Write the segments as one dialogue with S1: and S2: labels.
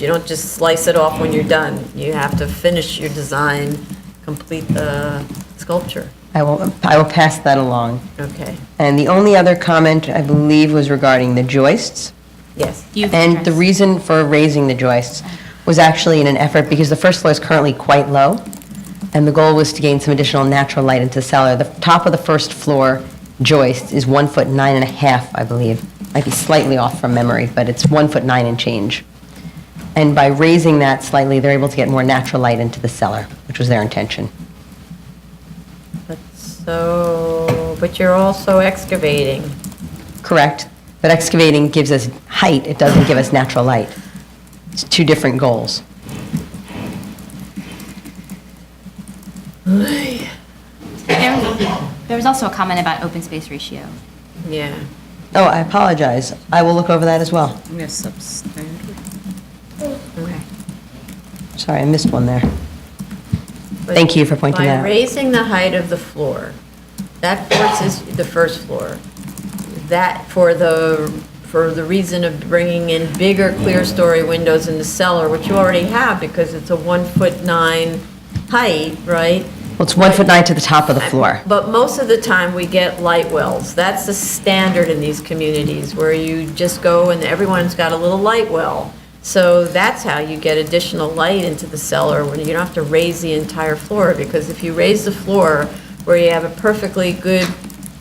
S1: You don't just slice it off when you're done. You have to finish your design, complete the sculpture.
S2: I will, I will pass that along.
S1: Okay,
S2: And the only other comment, I believe, was regarding the joists.
S1: yes.
S3: You've
S2: And the
S3: addressed-
S2: reason for raising the joists was actually in an effort, because the first floor is currently quite low, and the goal was to gain some additional natural light into the cellar. The top of the first floor joist is one foot nine and a half, I believe. Might be slightly off from memory, but it's one foot nine and change. And by raising that slightly, they're able to get more natural light into the cellar, which was their intention.
S1: But so, but you're also excavating.
S2: Correct. But excavating gives us height, it doesn't give us natural light. It's two different goals.
S3: There there was also a comment about open space ratio.
S1: Yeah.
S2: Oh, I apologize. I will look over that as well.
S4: Yes, substandard.
S2: Sorry, I missed one there.
S1: But
S2: Thank you for pointing that out.
S1: By raising the height of the floor, that forces the first floor. That, for the, for the reason of bringing in bigger clear-story windows in the cellar, which you already have because it's a one-foot nine height, right?
S2: Well, it's one foot nine to the top of the floor.
S1: But most of the time, we get light wells. That's the standard in these communities, where you just go and everyone's got a little light well. So that's how you get additional light into the cellar, when you don't have to raise the entire floor, because if you raise the floor where you have a perfectly good,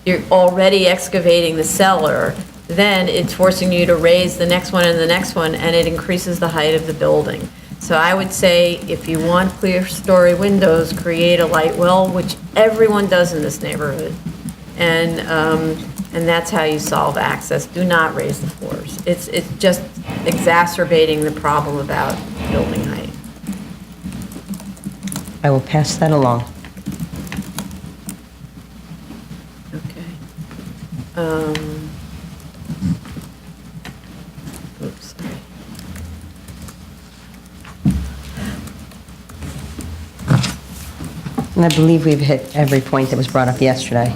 S1: you're already excavating the cellar, then it's forcing you to raise the next one and the next one, and it increases the height of the building. So I would say, if you want clear-story windows, create a light well, which everyone does in this neighborhood. And, um, and that's how you solve access. Do not raise the floors. It's, it's just exacerbating the problem about building height.
S2: I will pass that along.
S1: Okay. Um, Oops, sorry.
S2: And I believe we've hit every point that was brought up yesterday.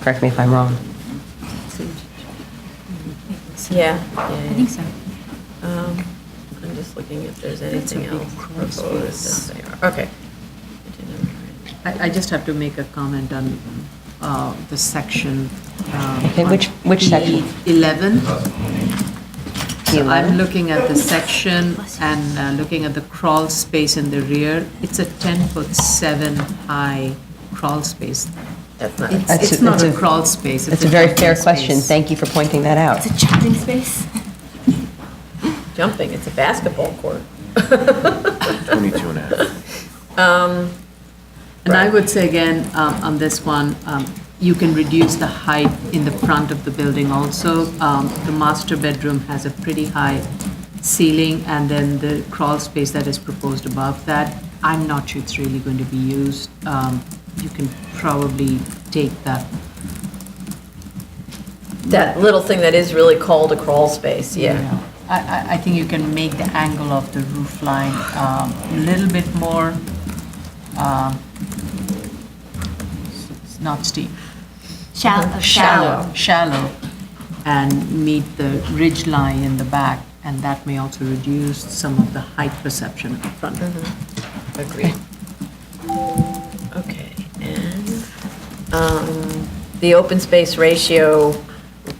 S2: Correct me if I'm wrong.
S1: Yeah,
S3: I
S1: yeah,
S3: think so.
S1: yeah. Um, I'm just looking if there's
S4: That's a
S1: anything
S4: big
S1: else
S4: cross
S1: proposed.
S4: piece.
S1: Yes, they are. Okay. I didn't write.
S4: I, I just have to make a comment on uh, the section. um,
S2: Okay, which-
S4: on
S2: which section?
S4: E 11. So I'm
S2: Eleven.
S4: looking at the section and uh, looking at the crawl space in the rear. It's a 10 foot 7 high crawl space.
S1: That's not.
S4: It's-
S2: That's
S4: It's
S2: a-
S4: not a
S2: it's a-
S4: crawl space.
S2: That's a very
S4: jumping
S2: fair question.
S4: space.
S2: Thank you for pointing that out.
S3: a chatting space?
S1: jumping, it's a basketball court.
S5: 22 and a half.
S4: And I would say again, um, on this one, um, you can reduce the height in the front of the building also. Um, The master bedroom has a pretty high ceiling, and then the crawl space that is proposed above that, I'm not sure it's really going to be used. Um, You can probably take that.
S1: That little thing that is really called a crawl space, yeah.
S4: I- I, I think you can make the angle of the roof line um, a little bit more, um, it's not steep.
S3: oh, Shallow.
S4: Shallow, and meet the ridge line in the back, and that may also reduce some of the height perception up front.
S1: Agreed. Okay, and, um, the open space ratio,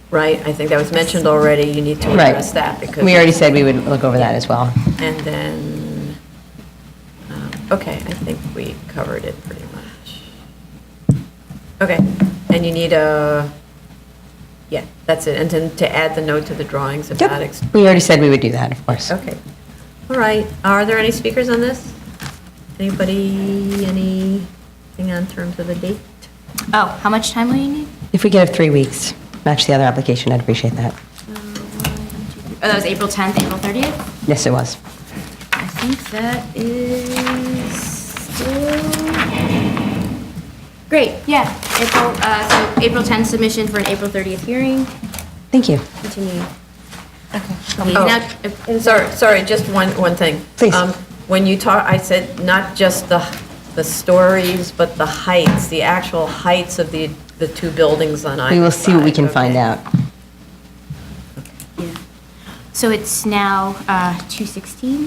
S1: right, I think that was mentioned already, you need to
S2: Right.
S1: address that because.
S2: We already said we would look over that as well.
S1: And then, um, okay, I think we covered it pretty much. Okay, and you need a, yeah, that's it, and then to add the note to the drawings about
S2: Yep.
S1: ex-
S2: We already said we would do that, of course.
S1: Okay. All right. Are there any speakers on this? Anybody, anything on terms of a date?
S3: Oh, how much time will you need?
S2: If we could have three weeks, match the other application, I'd appreciate that.
S3: Uh, Oh, that was April 10th, April 30th?
S2: Yes, it was.
S3: I think that is still... Great, yeah. April, uh, so April 10th submission for an April 30th hearing.
S2: Thank you.
S3: Continue. Okay.
S1: Oh, Sorry, sorry, just one, one thing.
S2: Please.
S1: Um, When you talk, I said not just the, the stories, but the heights, the actual heights of the, the two buildings on either
S2: We will see what we
S1: side.
S2: can find
S1: Okay.
S2: out.
S3: So it's now uh, 2:16?